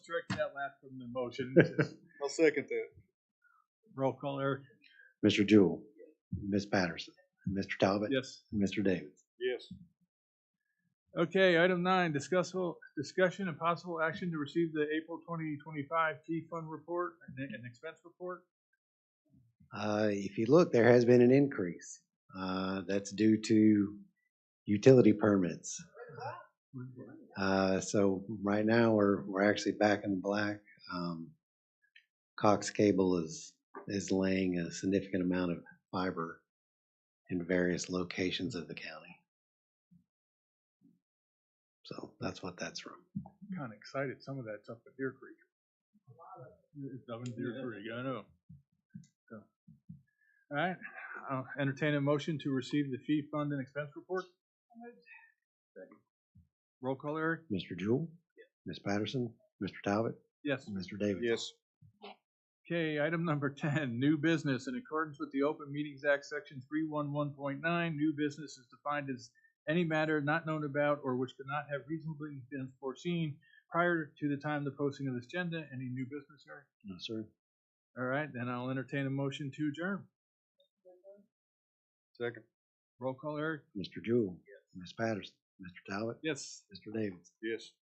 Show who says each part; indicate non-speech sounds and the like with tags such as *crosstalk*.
Speaker 1: Strike that last from the *laughs* motion.
Speaker 2: I'll second that.
Speaker 1: Roll call, Eric?
Speaker 3: Mr. Jewell, Ms. Patterson, Mr. Talbot,
Speaker 1: Yes.
Speaker 3: and Mr. Davis.
Speaker 2: Yes.
Speaker 1: Okay, item nine, discussable, discussion and possible action to receive the April twenty twenty-five T fund report and, and expense report.
Speaker 3: Uh, If you look, there has been an increase. Uh, That's due to utility permits. Uh, So right now, we're, we're actually back in the black. Um, Cox Cable is, is laying a significant amount of fiber in various locations of the county. So that's what that's from.
Speaker 1: Kinda excited, some of that's up at Deer Creek. It's up in Deer Creek, I know. So, All right, I'll entertain a motion to receive the fee fund and expense report. Second. Roll call, Eric?
Speaker 3: Mr. Jewell, Ms. Patterson, Mr. Talbot,
Speaker 1: Yes.
Speaker 3: and Mr. Davis.
Speaker 2: Yes.
Speaker 1: Okay, item number *laughs* ten, new business. In accordance with the Open Meetings Act, section three one one point nine, new business is defined as any matter not known about or which could not have reasonably been foreseen prior to the time of the posting of this agenda. Any new business, Eric?
Speaker 3: No, sir.
Speaker 1: All right, then I'll entertain a motion to adjourn.
Speaker 2: Second.
Speaker 1: Roll call, Eric?
Speaker 3: Mr. Jewell. Ms. Patterson. Mr. Talbot.
Speaker 1: Yes.
Speaker 3: Mr. Davis.
Speaker 2: Yes.